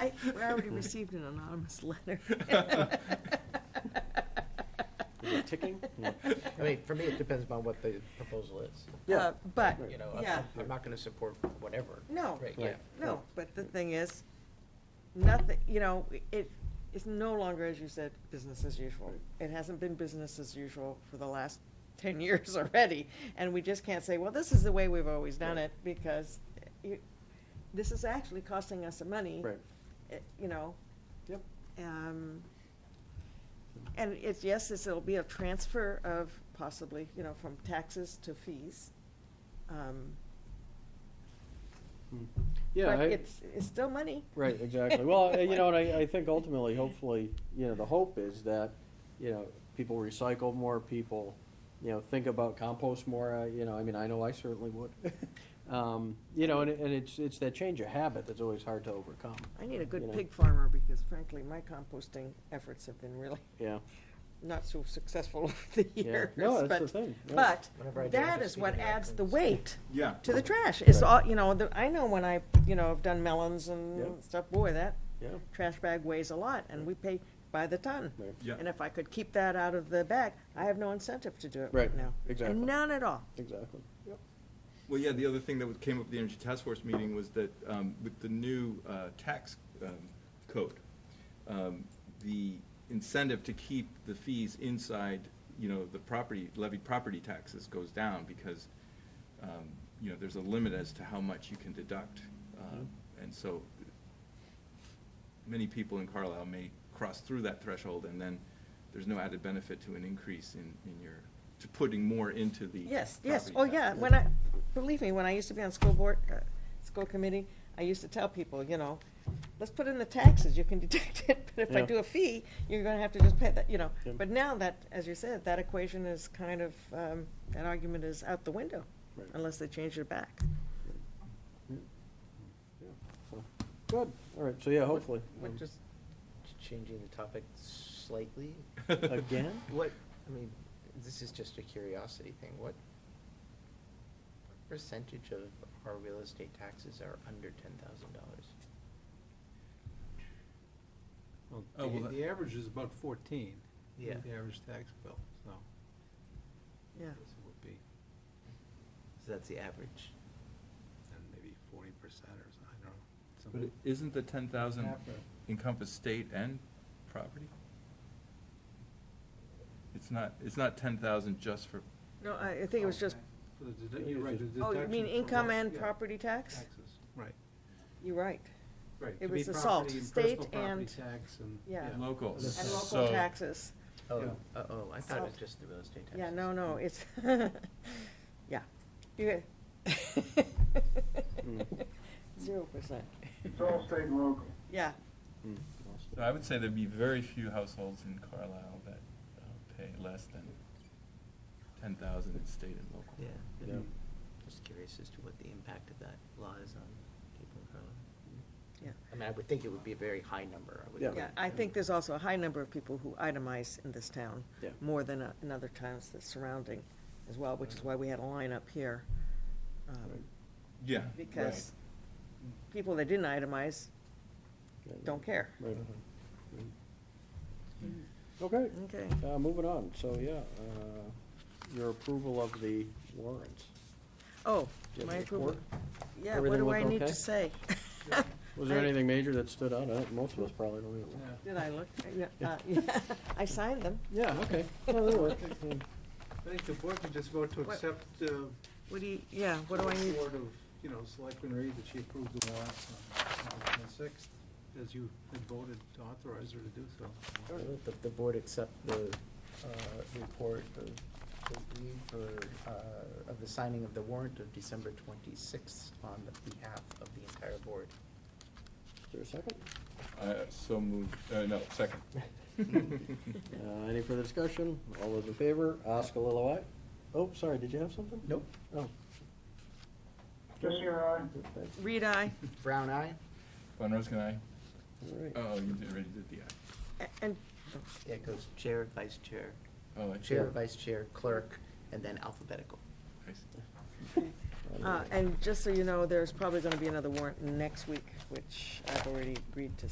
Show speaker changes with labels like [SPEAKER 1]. [SPEAKER 1] I, we already received an anonymous letter.
[SPEAKER 2] Is it ticking?
[SPEAKER 3] I mean, for me, it depends upon what the proposal is,
[SPEAKER 2] Yeah.
[SPEAKER 1] Uh, But,
[SPEAKER 3] you know, I'm-
[SPEAKER 1] yeah,
[SPEAKER 3] I'm, I'm not gonna support whatever.
[SPEAKER 1] no,
[SPEAKER 3] Right, yeah.
[SPEAKER 2] Right.
[SPEAKER 1] no, but the thing is, nothing, you know, it, it's no longer, as you said, business as usual. It hasn't been business as usual for the last ten years already, and we just can't say, well, this is the way we've always done
[SPEAKER 2] Right.
[SPEAKER 1] it, because you, this is actually costing us some money.
[SPEAKER 2] Right.
[SPEAKER 1] eh, You know,
[SPEAKER 2] Yep.
[SPEAKER 1] Um, and it's, yes, it's, it'll be a transfer of possibly, you know, from taxes to fees. Um,
[SPEAKER 2] Yeah,
[SPEAKER 1] But
[SPEAKER 2] I-
[SPEAKER 1] it's, it's still money.
[SPEAKER 2] right, exactly. Well, uh, you know, and I, I think ultimately, hopefully, you know, the hope is that, you know, people recycle more, people, you know, think about compost more, uh, you know, I mean, I know I certainly would. Um, You know, and, it- and it's, it's that change of habit that's always hard to overcome,
[SPEAKER 1] I need a
[SPEAKER 2] You
[SPEAKER 1] good
[SPEAKER 2] know.
[SPEAKER 1] pig farmer because frankly, my composting efforts have been really
[SPEAKER 2] yeah.
[SPEAKER 1] not so successful over the
[SPEAKER 2] yeah.
[SPEAKER 1] years.
[SPEAKER 2] No, that's the
[SPEAKER 1] but-
[SPEAKER 2] thing. yeah.
[SPEAKER 1] But
[SPEAKER 3] Whenever I do, I
[SPEAKER 1] that
[SPEAKER 3] just
[SPEAKER 1] is
[SPEAKER 3] feed
[SPEAKER 1] what
[SPEAKER 3] it back
[SPEAKER 1] adds the
[SPEAKER 3] and-
[SPEAKER 1] weight
[SPEAKER 4] Yeah.
[SPEAKER 1] to the trash. It's
[SPEAKER 2] Right.
[SPEAKER 1] all, you know, the- I know when I, you know, have done melons
[SPEAKER 2] Yeah.
[SPEAKER 1] and stuff, boy, that
[SPEAKER 2] Yeah,
[SPEAKER 1] trash bag weighs a lot and we pay by the ton.
[SPEAKER 2] right,
[SPEAKER 4] Yeah.
[SPEAKER 1] And if I could keep that out of the bag, I have no incentive to do it
[SPEAKER 2] Right,
[SPEAKER 1] right now.
[SPEAKER 2] exactly.
[SPEAKER 1] None at all.
[SPEAKER 2] exactly.
[SPEAKER 4] Well, yeah, the other thing that was- came up at the Energy Task Force meeting was that um, with the new uh, tax um, code, um, the incentive to keep the fees inside, you know, the property, levied property taxes goes down because, um, you know, there's a limit as to how much you can deduct. Um, And so many people in Carlisle may cross through that threshold and then there's no added benefit to an increase in, in your, to putting more into the
[SPEAKER 1] Yes, yes, oh
[SPEAKER 4] property
[SPEAKER 1] yeah,
[SPEAKER 4] tax.
[SPEAKER 1] when I, believe me, when I used to be on school board, uh, school committee, I used to tell people, you know, let's put in the taxes, you can deduct it, but if I
[SPEAKER 2] Yeah.
[SPEAKER 1] do a fee, you're gonna have to just pay that, you know.
[SPEAKER 2] Yep.
[SPEAKER 1] But now that, as you said, that equation is kind of, um, that argument is out the window,
[SPEAKER 2] Right.
[SPEAKER 1] unless they change it back.
[SPEAKER 2] So, Good, all right, so yeah, hopefully.
[SPEAKER 3] What,
[SPEAKER 2] um,
[SPEAKER 3] just ch- changing the topic slightly,
[SPEAKER 2] Again?
[SPEAKER 3] what, I mean, this is just a curiosity thing, what what percentage of our real estate taxes are under ten thousand dollars?
[SPEAKER 5] Well,
[SPEAKER 4] Oh, well,
[SPEAKER 5] the,
[SPEAKER 4] that-
[SPEAKER 5] the average is about fourteen.
[SPEAKER 3] Yeah.
[SPEAKER 5] The average tax bill, so.
[SPEAKER 1] Yeah,
[SPEAKER 5] This would be,
[SPEAKER 3] So that's the average.
[SPEAKER 5] and maybe forty percent or something, I don't know.
[SPEAKER 4] But
[SPEAKER 5] something.
[SPEAKER 4] it- isn't the ten thousand
[SPEAKER 5] Half of-
[SPEAKER 4] encompass state and property? It's not, it's not ten thousand just for,
[SPEAKER 1] no, I, I think it was just,
[SPEAKER 5] For the dedu-
[SPEAKER 2] I think
[SPEAKER 5] you're
[SPEAKER 2] it's
[SPEAKER 5] right, the
[SPEAKER 2] just-
[SPEAKER 1] oh, you
[SPEAKER 5] deduction
[SPEAKER 1] mean
[SPEAKER 5] for
[SPEAKER 1] income
[SPEAKER 5] both,
[SPEAKER 1] and
[SPEAKER 5] yeah,
[SPEAKER 1] property tax?
[SPEAKER 5] Taxes, right,
[SPEAKER 1] You're right,
[SPEAKER 5] right.
[SPEAKER 1] It
[SPEAKER 5] to be
[SPEAKER 1] was the
[SPEAKER 5] property
[SPEAKER 1] salt,
[SPEAKER 5] and
[SPEAKER 1] state
[SPEAKER 5] personal property
[SPEAKER 1] and-
[SPEAKER 5] Tax and.
[SPEAKER 1] yeah.
[SPEAKER 4] Local,
[SPEAKER 5] And
[SPEAKER 1] and
[SPEAKER 4] So-
[SPEAKER 1] local taxes,
[SPEAKER 3] Oh,
[SPEAKER 5] Yeah.
[SPEAKER 3] uh-oh, I thought it was
[SPEAKER 1] Salt.
[SPEAKER 3] just the real estate taxes.
[SPEAKER 1] yeah, no, no, it's, yeah. You- Zero percent.
[SPEAKER 6] It's all state and local.
[SPEAKER 1] Yeah,
[SPEAKER 2] Hmm.
[SPEAKER 4] so I would say there'd be very few households in Carlisle that uh, pay less than ten thousand in state and local.
[SPEAKER 3] Yeah,
[SPEAKER 2] Yeah.
[SPEAKER 3] just curious as to what the impact of that law is on people in Carlisle.
[SPEAKER 1] yeah,
[SPEAKER 3] I mean, I would think it would be a very high number, I would
[SPEAKER 2] Yeah.
[SPEAKER 3] think.
[SPEAKER 1] yeah. I think there's also a high number of people who itemize in this town.
[SPEAKER 2] Yeah.
[SPEAKER 1] More than uh, in other towns that's surrounding as well, which is why we had a line up here. um,
[SPEAKER 2] Right.
[SPEAKER 4] Yeah.
[SPEAKER 1] Because people that didn't itemize
[SPEAKER 2] Yeah, yeah.
[SPEAKER 1] don't care.
[SPEAKER 2] Right. Okay,
[SPEAKER 1] Okay.
[SPEAKER 2] uh, moving on, so, yeah, uh, your approval of the warrants.
[SPEAKER 1] Oh,
[SPEAKER 2] Do you have
[SPEAKER 1] my
[SPEAKER 2] any
[SPEAKER 1] approval.
[SPEAKER 2] report?
[SPEAKER 1] Yeah, what
[SPEAKER 2] Everything
[SPEAKER 1] do
[SPEAKER 2] look
[SPEAKER 1] I need
[SPEAKER 2] okay?
[SPEAKER 1] to say?
[SPEAKER 2] Was there
[SPEAKER 1] I-
[SPEAKER 2] anything major that stood out? I think most of us probably don't even.
[SPEAKER 5] Yeah.
[SPEAKER 1] Did I look? Yeah, uh, yeah. I signed them.
[SPEAKER 2] Yeah, okay. Well, that'll work. Yeah.
[SPEAKER 5] I think the board could just vote to
[SPEAKER 1] What-
[SPEAKER 5] accept, uh.
[SPEAKER 1] What do you, yeah, what do I
[SPEAKER 5] the
[SPEAKER 1] need?
[SPEAKER 5] report of, you know, Selectman Reed, that she approved the warrants on August twenty-sixth, as you had voted to authorize her to do so.
[SPEAKER 3] I move that the board accept the uh, report of the deed for, uh, of the signing of the warrant of December twenty-sixth on the behalf of the entire board.
[SPEAKER 2] Is there a second?
[SPEAKER 4] Uh, So moved, uh, no, second.
[SPEAKER 2] Uh, any further discussion? All those in favor? Oscar Lilo, aye. Oh, sorry, did you have something?
[SPEAKER 3] Nope.
[SPEAKER 2] Oh.
[SPEAKER 6] Just your eye.
[SPEAKER 2] okay.
[SPEAKER 1] Reed, I.
[SPEAKER 3] Brown eye?
[SPEAKER 4] Von Roskin, aye?
[SPEAKER 2] All right.
[SPEAKER 4] Oh, you did- already did the aye.
[SPEAKER 1] And
[SPEAKER 3] Yeah, it goes chair, vice chair,
[SPEAKER 4] Oh, I see.
[SPEAKER 3] chair, vice chair, clerk, and then alphabetical.
[SPEAKER 4] I see.
[SPEAKER 1] Uh, And just so you know, there's probably going to be another warrant next week, which I've already agreed to